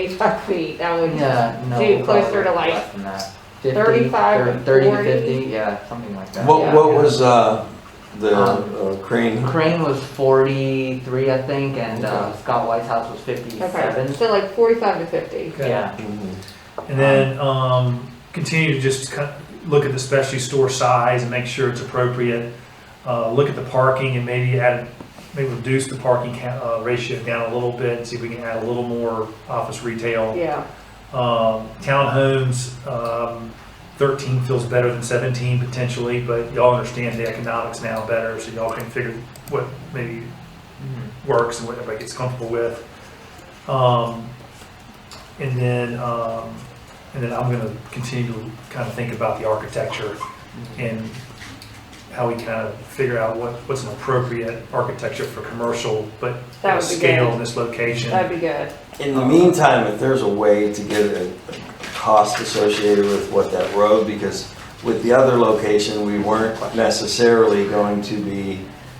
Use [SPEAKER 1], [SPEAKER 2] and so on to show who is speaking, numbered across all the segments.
[SPEAKER 1] eighty-five feet, that would,
[SPEAKER 2] Yeah, no.
[SPEAKER 1] Dude, closer to
[SPEAKER 2] probably
[SPEAKER 1] like
[SPEAKER 2] less than that. 50,
[SPEAKER 1] 35 and
[SPEAKER 2] Thirty to
[SPEAKER 1] 40.
[SPEAKER 2] fifty, yeah, something like that.
[SPEAKER 3] What,
[SPEAKER 1] Yeah.
[SPEAKER 3] what was, uh, the
[SPEAKER 2] Um,
[SPEAKER 3] uh, crane?
[SPEAKER 2] Crane was forty-three, I think, and uh, Scott White's house was
[SPEAKER 1] okay,
[SPEAKER 2] fifty-seven.
[SPEAKER 1] so like forty-five to fifty.
[SPEAKER 4] Okay.
[SPEAKER 2] Yeah,
[SPEAKER 3] Mhm.
[SPEAKER 4] And then um, continue to just kind of look at the specialty store size and make sure it's appropriate. Uh, look at the parking and maybe add, maybe reduce the parking ca- uh, ratio down a little bit and see if we can add a little more office retail.
[SPEAKER 1] Yeah,
[SPEAKER 4] Um, townhomes, um, 13 feels better than 17 potentially, but y'all understand the economics now better, so y'all can figure what maybe works and what everybody gets comfortable with. Um, and then, um, and then I'm gonna continue to kind of think about the architecture and how we kind of figure out what, what's an appropriate architecture for commercial, but
[SPEAKER 1] That would be
[SPEAKER 4] scale
[SPEAKER 1] good.
[SPEAKER 4] in this location.
[SPEAKER 1] that'd be good.
[SPEAKER 3] In the meantime, if there's a way to get a a cost associated with what that road, because with the other location, we weren't necessarily going to be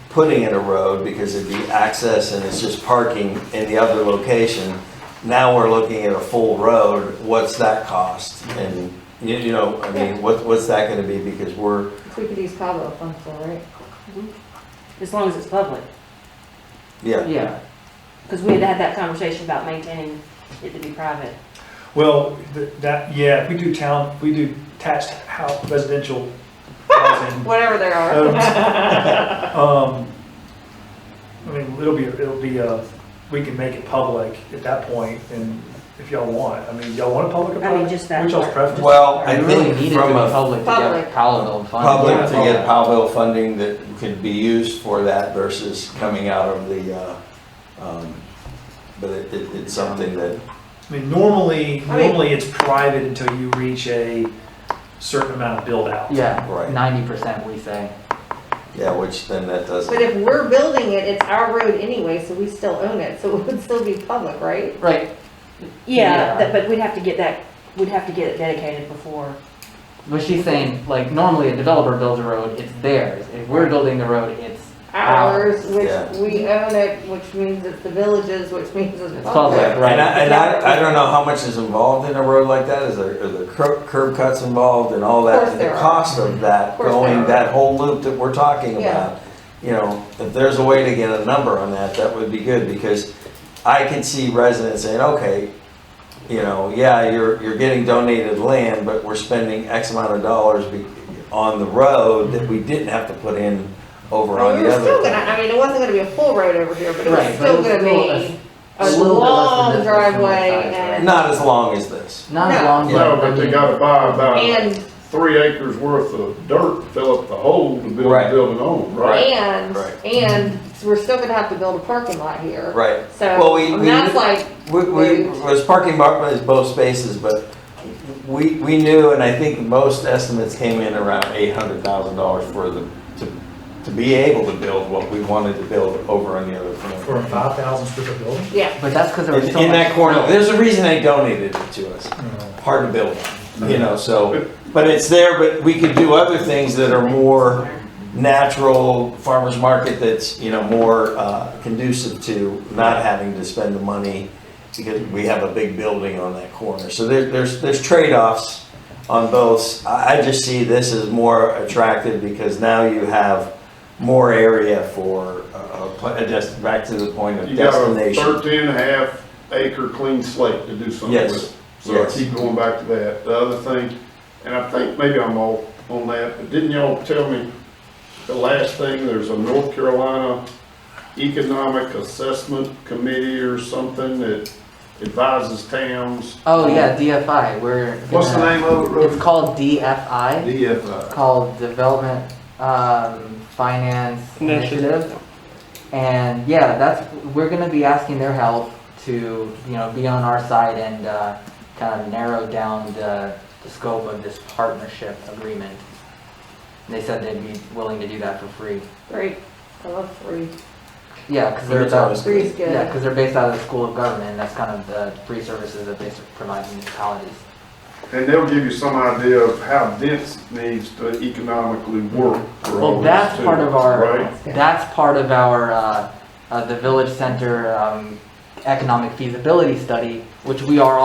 [SPEAKER 3] putting in a road because it'd be access and it's just parking in the other location. Now we're looking at a full road, what's that cost? And, you, you know, I mean, what, what's that gonna be? Because we're,
[SPEAKER 1] We could use Cabo funds for, right?
[SPEAKER 5] as long as it's public.
[SPEAKER 3] yeah,
[SPEAKER 2] Mm-hmm. yeah.
[SPEAKER 5] Because we had had that conversation about maintaining it to be private.
[SPEAKER 4] Well, th- that, yeah, if we do town, we do attached house, residential housing.
[SPEAKER 1] Whatever there are.
[SPEAKER 4] um, um, I mean, it'll be, it'll be, uh, we can make it public at that point, and if y'all want, I mean, y'all want a public
[SPEAKER 5] I mean,
[SPEAKER 4] apartment?
[SPEAKER 5] just that
[SPEAKER 4] Which y'all's
[SPEAKER 5] part.
[SPEAKER 4] preference?
[SPEAKER 3] well,
[SPEAKER 2] I
[SPEAKER 3] I
[SPEAKER 2] really
[SPEAKER 3] think
[SPEAKER 2] needed to be
[SPEAKER 3] from a
[SPEAKER 2] public to get
[SPEAKER 1] Public.
[SPEAKER 2] Powellville funding.
[SPEAKER 3] public to get Powellville funding that could be used for that versus coming out of the, uh, um, but it, it- it's something that,
[SPEAKER 4] I mean, normally,
[SPEAKER 1] I mean-
[SPEAKER 4] normally it's private until you reach a certain amount of build out.
[SPEAKER 2] Yeah,
[SPEAKER 3] Right.
[SPEAKER 2] ninety percent we say.
[SPEAKER 3] yeah, which then that doesn't.
[SPEAKER 1] But if we're building it, it's our road anyway, so we still own it, so it would still be public, right?
[SPEAKER 2] Right, Yeah.
[SPEAKER 5] Yeah, that- but we'd have to get that, we'd have to get it dedicated before.
[SPEAKER 2] but she's saying, like, normally a developer builds a road, it's theirs. If we're building the road, it's
[SPEAKER 1] Ours, which
[SPEAKER 3] Yeah.
[SPEAKER 1] we own it, which means it's the villages, which means it's
[SPEAKER 2] It's
[SPEAKER 1] public.
[SPEAKER 2] public.
[SPEAKER 3] And I, and I, I don't know how much is involved in a road like that, is there, are there cur- curb cuts involved and all
[SPEAKER 1] Of
[SPEAKER 3] that?
[SPEAKER 1] course
[SPEAKER 3] and the
[SPEAKER 1] there are.
[SPEAKER 3] cost of that,
[SPEAKER 1] Of course there
[SPEAKER 3] going
[SPEAKER 1] are.
[SPEAKER 3] that whole loop that we're talking
[SPEAKER 1] Yeah.
[SPEAKER 3] about. You know, if there's a way to get a number on that, that would be good, because I can see residents saying, okay, you know, yeah, you're, you're getting donated land, but we're spending X amount of dollars be- on the road that we didn't have to put in over
[SPEAKER 1] I mean,
[SPEAKER 3] on
[SPEAKER 1] we
[SPEAKER 3] the
[SPEAKER 1] were still
[SPEAKER 3] other.
[SPEAKER 1] gonna, I mean, it wasn't gonna be a full road over here, but it
[SPEAKER 2] Right,
[SPEAKER 1] was
[SPEAKER 2] but
[SPEAKER 1] still
[SPEAKER 2] it's
[SPEAKER 1] gonna
[SPEAKER 2] still a-
[SPEAKER 1] be
[SPEAKER 2] a
[SPEAKER 1] a
[SPEAKER 2] little bit less
[SPEAKER 1] long
[SPEAKER 2] than this, but it's more
[SPEAKER 1] driveway
[SPEAKER 2] size,
[SPEAKER 1] and.
[SPEAKER 3] Not as long as this.
[SPEAKER 2] not
[SPEAKER 1] No.
[SPEAKER 2] as long as.
[SPEAKER 6] No, but they gotta buy about
[SPEAKER 1] And,
[SPEAKER 6] three acres worth of dirt, fill up the hole to build
[SPEAKER 3] Right.
[SPEAKER 6] the building on, right?
[SPEAKER 1] and,
[SPEAKER 3] Right.
[SPEAKER 1] and we're still gonna have to build a parking lot here.
[SPEAKER 3] Right. Well,
[SPEAKER 1] So,
[SPEAKER 3] we-
[SPEAKER 1] and
[SPEAKER 3] we-
[SPEAKER 1] that's like,
[SPEAKER 3] We, we,
[SPEAKER 1] Moved.
[SPEAKER 3] was parking bar, is both spaces, but we, we knew, and I think most estimates came in around eight hundred thousand dollars for the, to, to be able to build what we wanted to build over on the other
[SPEAKER 4] For a
[SPEAKER 3] corner.
[SPEAKER 4] five thousand square foot building?
[SPEAKER 1] yeah,
[SPEAKER 2] But that's because there was
[SPEAKER 3] In
[SPEAKER 2] so
[SPEAKER 3] in
[SPEAKER 2] much
[SPEAKER 3] that corner,
[SPEAKER 2] snow.
[SPEAKER 3] there's a reason they donated it to us,
[SPEAKER 4] No.
[SPEAKER 3] hard to build, on, you know, so, but it's there, but we could do other things that are more natural farmer's market that's, you know, more uh, conducive to not having to spend the money because we have a big building on that corner. So there, there's, there's trade-offs on both. I, I just see this as more attractive because now you have more area for, uh, a pla- just back to the point of
[SPEAKER 6] You got a
[SPEAKER 3] destination.
[SPEAKER 6] 13 and a half acre clean slate to do something
[SPEAKER 3] Yes.
[SPEAKER 6] with. So I
[SPEAKER 3] Yes.
[SPEAKER 6] keep going back to that. The other thing, and I think maybe I'm off on that, but didn't y'all tell me the last thing, there's a North Carolina Economic Assessment Committee or something that advises towns?
[SPEAKER 2] Oh, yeah, DFI, we're.
[SPEAKER 6] What's the
[SPEAKER 2] gonna-
[SPEAKER 6] name of it, Rhoda?
[SPEAKER 2] It's called DFI,
[SPEAKER 6] DFI.
[SPEAKER 2] called Development, um, Finance Initiative. And yeah, that's, we're gonna be asking their help to, you know, be on our side and, uh, kind of narrow down the, the scope of this partnership agreement. And They said they'd be willing to do that for free.
[SPEAKER 1] great, I love three,
[SPEAKER 2] Yeah, cause they're
[SPEAKER 3] It's always
[SPEAKER 2] about,
[SPEAKER 1] three's good.
[SPEAKER 2] yeah, cause they're based out of the School of Government, and that's kind of the free services that they s- provide municipalities.
[SPEAKER 6] And they'll give you some idea of how dense needs to economically work for all
[SPEAKER 2] Well,
[SPEAKER 6] this
[SPEAKER 2] that's
[SPEAKER 6] too,
[SPEAKER 2] part of our,
[SPEAKER 6] Right?
[SPEAKER 1] That's good.
[SPEAKER 2] that's part of our, uh, uh, the village center, um, economic feasibility study, which we are